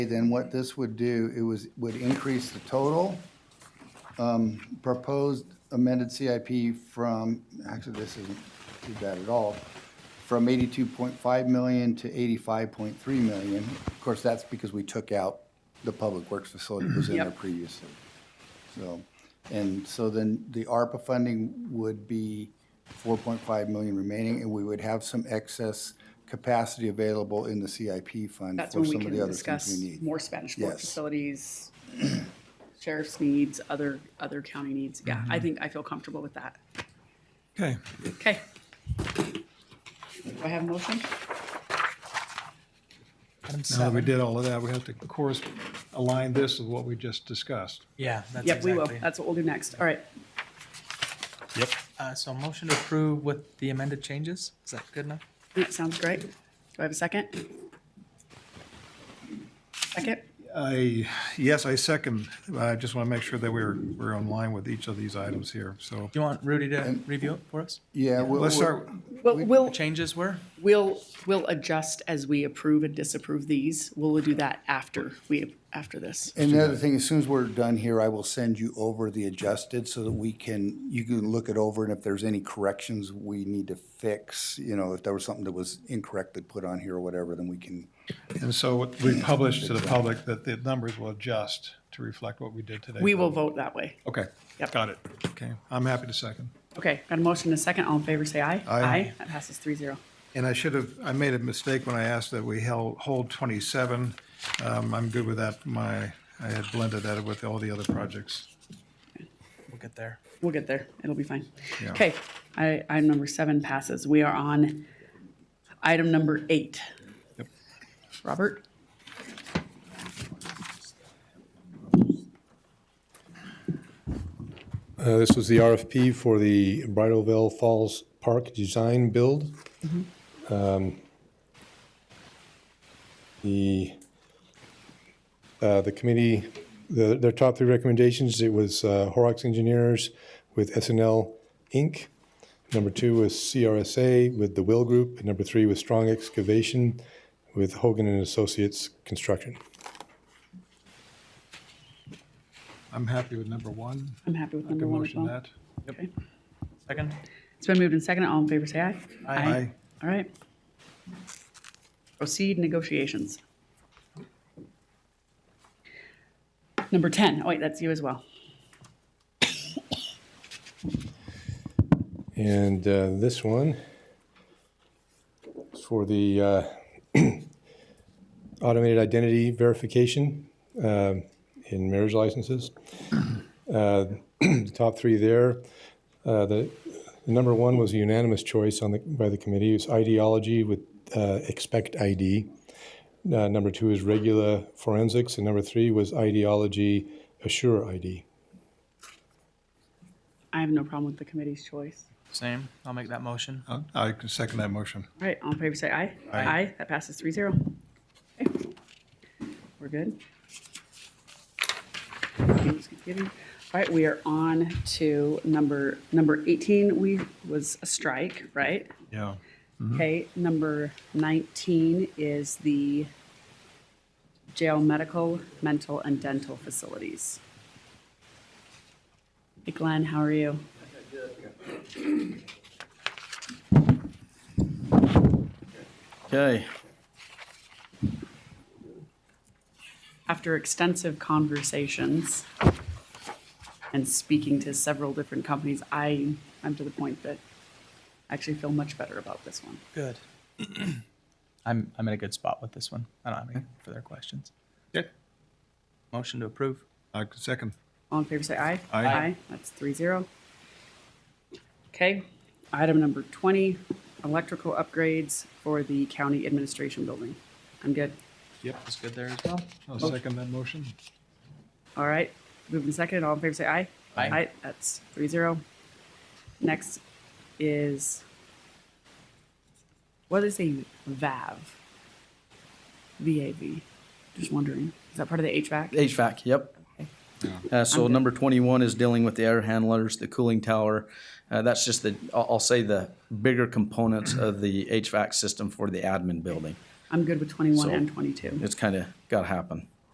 Then what this would do, it was, would increase the total um, proposed amended CIP from, actually, this isn't too bad at all, from 82.5 million to 85.3 million. Of course, that's because we took out the Public Works facility that was in there Yep. previously. So, and so then the ARPA funding would be 4.5 million remaining, and we would have some excess capacity available in the CIP fund That's for when we some can of the other things discuss we need. more Spanish Fork Yes. facilities, sheriff's needs, other, other county needs. Yeah, Mm-hmm. I think I feel comfortable with that. Okay, Okay. Do I have a motion? now that we did all of that, we have to, of course, align this with what we just discussed. Yeah, that's Yep, we will. exactly. That's what we'll do next. All right. Yep. Uh, so motion to approve with the amended changes. Is that good enough? That sounds great. Do I have a second? Second? I, yes, I second. I just want to make sure that we're, we're in line with each of these items here, so. Do you want Rudy to review it for us? Yeah, we'll, Let's we'll- start, Well, we'll, Changes were? we'll, we'll adjust as we approve and disapprove these. We'll do that after we, after this. and the other thing, as soon as we're done here, I will send you over the adjusted so that we can, you can look it over, and if there's any corrections we need to fix, you know, if there was something that was incorrectly put on here or whatever, then we can, and so we published to the public that the numbers will adjust to reflect what we did today. We will vote that way. Okay, Yep. got it. Okay, I'm happy to second. Okay, got a motion and a second. All in favor, say aye. Aye. That passes three zero. And I should have, I made a mistake when I asked that we held, hold 27. Um, I'm good with that. My, I had blended that with all the other projects. We'll get there. We'll get there. It'll be fine. Yeah. Okay, I, item number seven passes. We are on item number eight. Yep. Robert? Uh, This was the RFP for the Bridalveil Falls Park Design Build. Um, The, uh, the committee, the- their top three recommendations, it was uh, Horrocks Engineers with SNL Inc. Number two was CRSA with the Will Group. And number three was Strong Excavation with Hogan and Associates Construction. I'm happy with number one. I'm happy with I number can one as motion well. that. Okay. Second? It's been moved and seconded. All in favor, say aye. Aye. All right. Proceed negotiations. Number 10. Oh, wait, that's you as well. And uh, this one is for the uh, automated identity verification um, in marriage licenses. Uh, The top three there, uh, the the number one was a unanimous choice on the, by the committee, it's ideology with uh, expect ID. Uh, Number two is regular forensics, and number three was ideology assure ID. I have no problem with the committee's choice. Same. I'll make that motion. Uh, I can second that motion. All right, all in favor, say aye. Aye. That passes three zero. We're good. All right, we are on to number, number 18, we, was a strike, right? Yeah. Okay, number 19 is the jail medical, mental, and dental facilities. Hey Glenn, how are you? Okay, after extensive conversations and speaking to several different companies, I, I'm to the point that I actually feel much better about this one. Good. I'm, I'm in a good spot with this one. I don't have any further questions. Good. Motion to approve. I can second. All in favor, say aye. Aye. That's three zero. Okay, item number twenty, electrical upgrades for the county administration building. I'm good. Yep. It's good there as well. I'll second that motion. All right, moving second, all in favor, say aye. Aye. that's three zero. Next is, what is a VAV? VAV, just wondering, is that part of the HVAC? HVAC, yep. Uh, so number twenty-one is dealing with the air handlers, the cooling tower. Uh, that's just the, I'll, I'll say the bigger components of the HVAC system for the admin building. I'm good with twenty-one So- and twenty-two. It's kind of got to happen.